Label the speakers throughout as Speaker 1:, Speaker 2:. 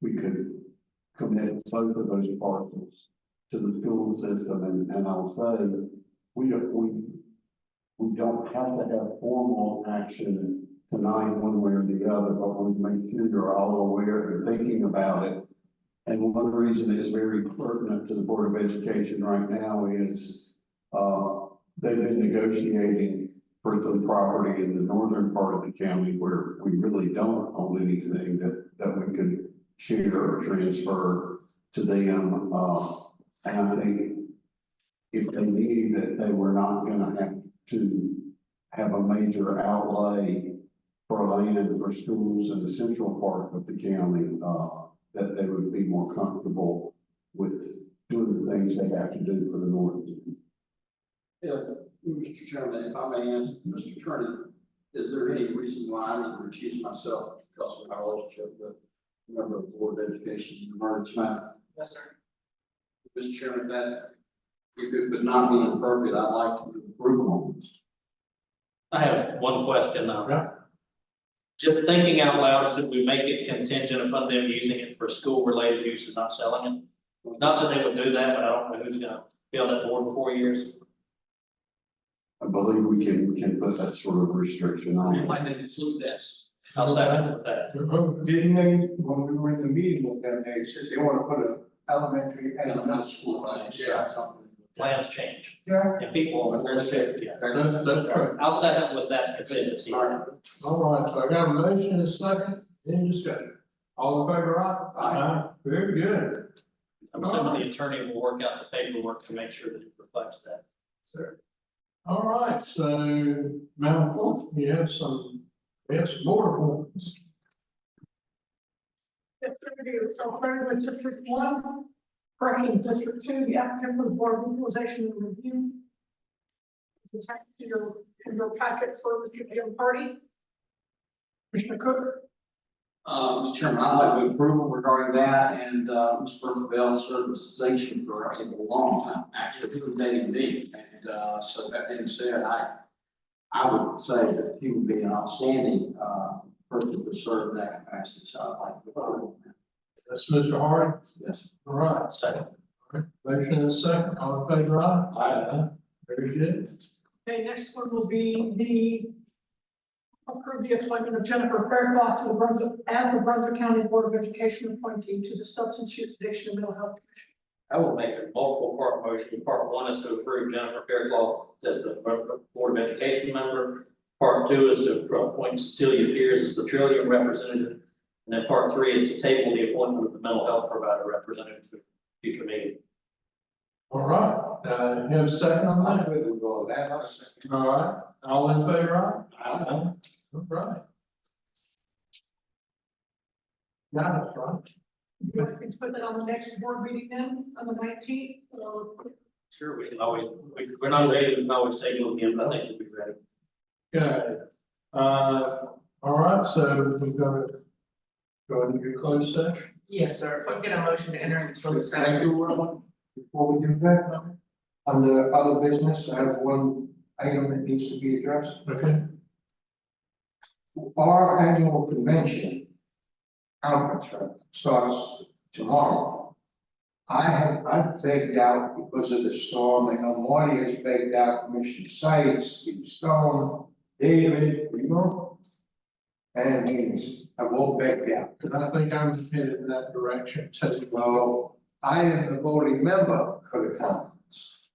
Speaker 1: we could commit both of those parcels to the school system, and, and I'll say, we don't, we, we don't have to have formal action tonight, one way or the other, but we make sure you're all aware and thinking about it. And one reason it's very pertinent to the Board of Education right now is, uh, they've been negotiating for some property in the northern part of the county where we really don't own anything that, that we could share or transfer to them. Uh, and I think if they knew that they were not gonna have to have a major outlay for land for schools in the central part of the county, uh, that they would be more comfortable with doing the things they have to do for the north.
Speaker 2: Yeah, Mr. uh, Chairman, if I may ask, Mr. Turner, is there any reason why I need to recuse myself because of my relationship with a member of the Board of Education, Murray Smith? Yes, sir. Mr. Chairman, that, if it would not be appropriate, I'd like to approve on this.
Speaker 3: I have one question now. Just thinking out loud, should we make it contingent upon them using it for school-related use and not selling it? Not that they would do that, but I don't know who's gonna be on that board in four years.
Speaker 1: I believe we can, can put that sort of restriction on
Speaker 3: I'd
Speaker 1: it.
Speaker 3: like to include this. I'll second with that.
Speaker 4: Didn't they, when we were in the meeting with them, they said they wanna put a elementary
Speaker 2: And
Speaker 4: and a
Speaker 2: I'm
Speaker 4: middle
Speaker 2: not
Speaker 4: school.
Speaker 2: school, right, so
Speaker 4: Yeah.
Speaker 2: that's something.
Speaker 3: Plans change
Speaker 4: Yeah.
Speaker 3: and people are more strict, yeah.
Speaker 4: That- that's right.
Speaker 3: I'll second with that contingency.
Speaker 2: All right.
Speaker 4: All right, so I got a motion and a second, any discussion? All in favor, aye? Aye. Very good.
Speaker 3: I'm assuming the attorney will work out the paperwork to make sure that it reflects that.
Speaker 4: All right, so Madam Clerk, we have some, we have some board appointments.
Speaker 5: Yes, sir, we do. So starting with District One, correcting District Two, the applicant for the Board of Equalization and Review. You type to your, to your packet for Mr. Dale Party. Commissioner Cook,
Speaker 2: Uh, Mr. Chairman, I'd like to approval regarding that and, uh, Ms. Bertha Bell served this distinction for a long time, actually, through day and date. And, uh, so that being said, I, I would say that he would be an outstanding, uh, person to serve in that capacity, so I'd like to approve.
Speaker 4: That's Mr. Harding.
Speaker 2: Yes.
Speaker 4: All right,
Speaker 3: Second.
Speaker 4: motion and a second, all in favor, aye? Aye. Very good.
Speaker 5: Okay, next one will be the approve the appointment of Jennifer Fairclough to the Brunswick, as the Brunswick County Board of Education appointee to the Substance Use Addiction and Mental Health Commission.
Speaker 3: I will make a multiple part motion. Part one is to approve Jennifer Fairclough as the Board of Education member. Part two is to appoint Cecilia Pierce as the Trillium representative. And then part three is to table the appointment of the mental health provider representative to a future meeting.
Speaker 4: All right, uh, you have a second on that? All right, all in favor, aye? Aye. All right. Got it, right?
Speaker 5: You want me to put that on the next board meeting then, on the nineteenth, or?
Speaker 3: Sure, we can always, we- we're not ready, we can always table it again, but I think we'll be ready.
Speaker 4: Good. Uh, all right, so we're gonna go into your closed session.
Speaker 6: Yes, sir, if I get a motion to enter into closed
Speaker 7: Can I
Speaker 6: session.
Speaker 7: do one more before we do that? On the other business, I have one item that needs to be addressed.
Speaker 4: Okay.
Speaker 7: Our annual convention conference right, starts tomorrow. I have, I've begged out because of the storm, I know Marty has begged out Commissioner Sites, Steve Stone, David, Remo. And Haynes, I've all begged out.
Speaker 4: And I think I'm headed in that direction, too.
Speaker 7: Well, I am the voting member for the conference.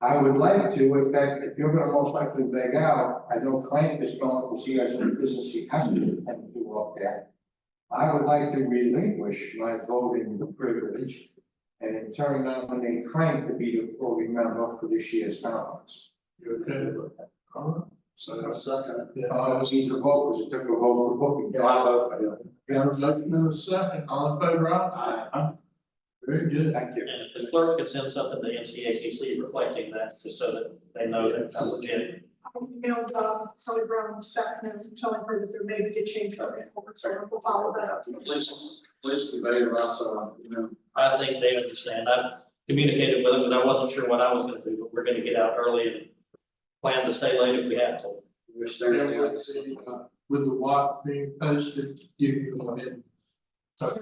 Speaker 7: I would like to, if that, if you're gonna most likely beg out, I know Frank is gone, because he has a business he has to attend to up there. I would like to relinquish my voting privilege and in turn nominate Frank to be the voting member for this year's conference.
Speaker 4: You okay with that? All right, so.
Speaker 7: second.
Speaker 4: yeah.
Speaker 7: Uh, it needs a vote, because it took a vote for booking. I vote.
Speaker 4: Got a motion and a second, all in favor, aye?
Speaker 7: Aye.
Speaker 4: Very good.
Speaker 7: Thank you.
Speaker 3: And if the clerk could send something to NCACC reflecting that, just so that they know that it's legit.
Speaker 5: I emailed uh, Kelly Brown this afternoon, telling her that there may be a change of report, so we'll follow that up.
Speaker 2: Please, please convey to us, uh, you know,
Speaker 3: I think they understand. I've communicated with them, but I wasn't sure what I was gonna do, but we're gonna get out early and plan to stay late if we have to.
Speaker 2: we're
Speaker 4: Yeah,
Speaker 2: standing.
Speaker 4: like I said, uh, With the watch being posted, you can go ahead and